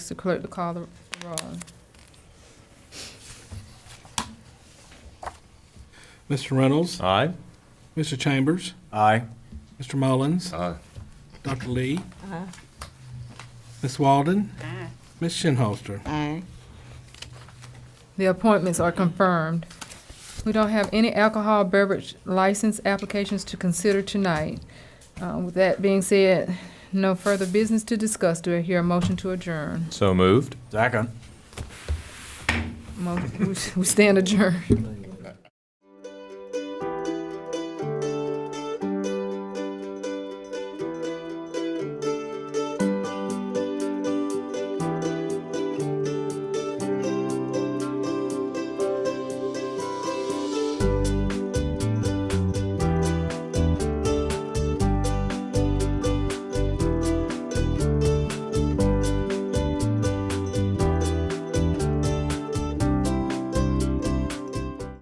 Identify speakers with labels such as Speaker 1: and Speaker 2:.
Speaker 1: the clerk to call the roll.
Speaker 2: Mr. Reynolds,
Speaker 3: Aye.
Speaker 2: Mr. Chambers,
Speaker 3: Aye.
Speaker 2: Mr. Mullins,
Speaker 3: Aye.
Speaker 2: Dr. Lee, Ms. Walden, Ms. Shinholster.
Speaker 4: Aye.
Speaker 1: The appointments are confirmed. We don't have any alcohol beverage license applications to consider tonight. Uh, With that being said, no further business to discuss. Do I hear a motion to adjourn?
Speaker 3: So moved.
Speaker 5: Second.
Speaker 1: Mo- We we stand adjourned.